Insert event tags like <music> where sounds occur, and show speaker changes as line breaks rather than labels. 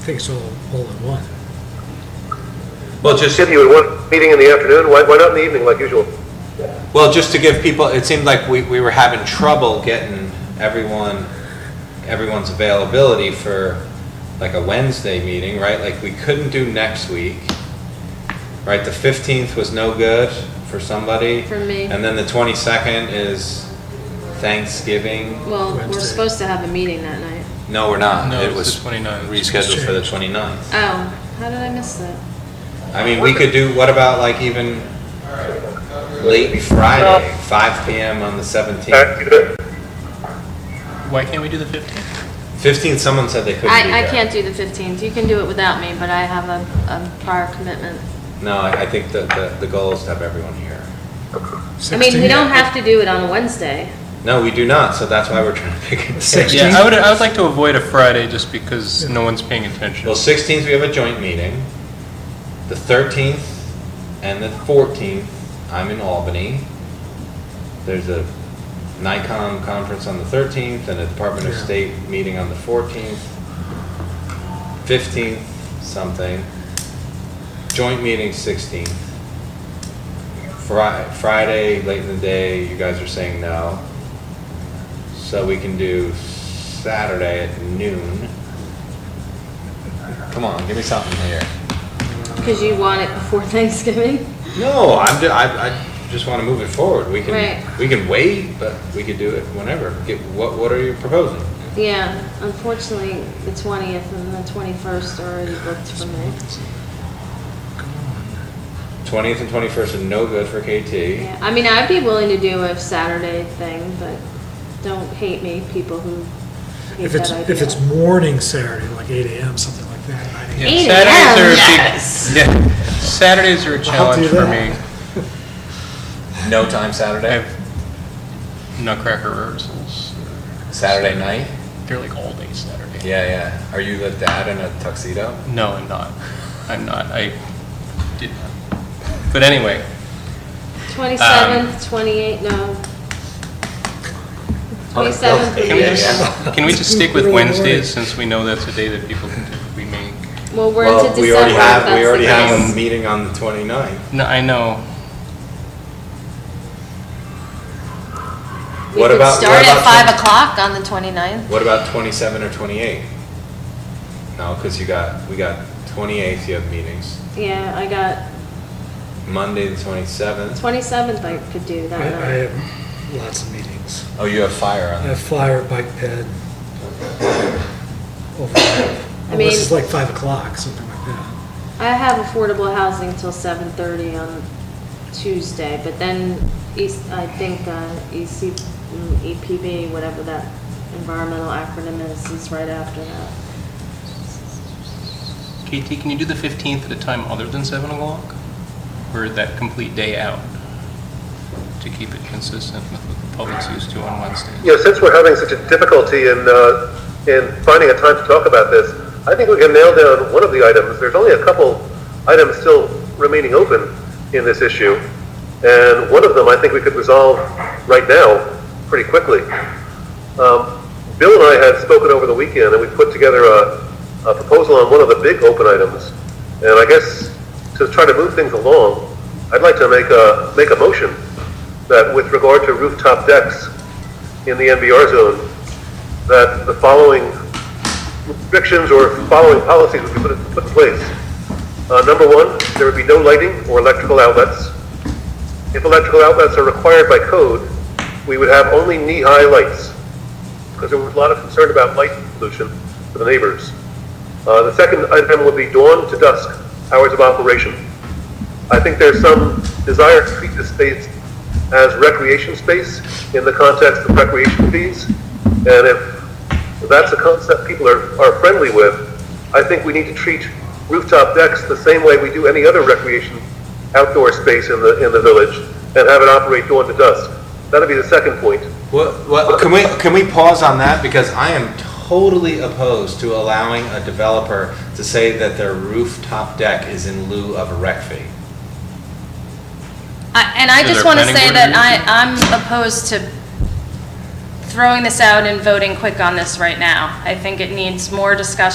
think it's all, all in one.
Well, just,
Skip, you had one meeting in the afternoon, why, why not in the evening like usual?
well, just to give people, it seemed like we, we were having trouble getting everyone, everyone's availability for like a Wednesday meeting, right? Like, we couldn't do next week, right? The 15th was no good for somebody.
For me.
And then the 22nd is Thanksgiving.
Well,
Wednesday.
we're supposed to have a meeting that night.
No, we're not.
No,
It
it's
was
the 29th.
rescheduled for the 29th.
Oh, how did I miss that?
I mean, we could do, what about like even late Friday, 5 PM on the 17th?
Uh, you bet.
Why can't we do the 15th?
15th, someone said they couldn't be
I, I
there.
can't do the 15th. You can do it without me, but I have a, a prior commitment.
No, I I think that the, the goal is to have everyone here.
I mean, we
16?
don't have to do it on a Wednesday.
No, we do not, so that's why we're trying to pick a
Six.
<laughs> day.
Yeah, I would, I would like to avoid a Friday just because no one's paying attention.
Well, 16th, we have a joint meeting. The 13th and the 14th, I'm in Albany. There's a NICOM conference on the 13th and a Department of
Yeah.
State meeting on the 14th. 15th, something. Joint meeting 16th. Fri- Friday, late in the day, you guys are saying no. So we can do Saturday at noon. Come on, give me something here.
Because you want it before <laughs> Thanksgiving?
No, I'm, ju- I, I just wanna move it forward. We can,
Right.
we can wait, but we could do it whenever. Get, what, what are you proposing?
Yeah, unfortunately, the 20th and the 21st are already booked for me.
Twentieth and twenty-first are no good for KT.
Yeah, I mean, I'd be willing to do a Saturday thing, but don't hate me, people who hate
If it's,
that
if it's
idea.
morning Saturday, like eight AM, something like that, nine
Yeah,
8
Saturdays are a
a.m.,
big- <laughs> Yeah, Saturdays are a challenge
do
for me.
that.
No time
I
Saturday?
have nutcracker rehearsals.
Saturday night?
They're like all day Saturday.
Yeah, yeah. Are you the dad in a tuxedo?
No, I'm not. I'm not. I did not. But anyway,
27th,
Um,
28th,
uh,
no. 27th would
can we
Yeah,
be,
just, can we just stick with
Really boring.
Wednesdays since we know that's a day that people can typically make?
well, we're
Well,
into
we
December,
already
if
have-
that's the
We already have a
case.
meeting on the 29th.
No, I know.
We
What
could
about-
start
what
at
about
five
twenty-
o'clock on the 29th.
What about twenty-seven or twenty-eight? No, because you got, we got twenty-eighth, you have meetings.
Yeah, I got
Monday, the twenty-seventh.
27th I could do
I, I
that night.
have lots of meetings.
Oh, you have fire
I
on
have flyer, bike ped. overnight.
I mean-
Unless it's like five o'clock, something like that.
I have affordable housing till 7:30 on Tuesday, but then East, I think uh, EC, mm, EPB, whatever that environmental acronym is, is right after that.
KT, can you do the 15th at a time other than 7 o'clock? Or that complete day out? To keep it consistent with what the public's used to on Wednesdays?
You know, since we're having such a difficulty in, uh, in finding a time to talk about this, I think we can nail down one of the items. There's only a couple items still remaining open in this issue, and one of them I think we could resolve right now pretty quickly. Um, Bill and I had spoken over the weekend, and we put together a, a proposal on one of the big open items. And I guess to try to move things along, I'd like to make a, make a motion that with regard to rooftop decks, in the NBR zone that the following restrictions or following policies would be put, put in place. Uh, number one, there would be no lighting or electrical outlets. If electrical outlets are required by code, we would have only knee-high lights because there was a lot of concern about light pollution for the neighbors. Uh, the second item would be dawn to dusk hours of operation. I think there's some desire to treat this space as recreation space in the context of recreation fees. And if that's a concept people are, are friendly with, I think we need to treat rooftop decks the same way we do any other recreation outdoor space in the, in the village and have it operate dawn to dusk. That'd be the second point.
What, what, can we, can we pause on that? Because I am totally opposed to allowing a developer to say that their rooftop deck is in lieu of a rec fee.
I- And I
Is
just
there
want to
planning
say
board
that
review?
I, I'm opposed to throwing this out and voting quick on this right now. I think it needs more discussion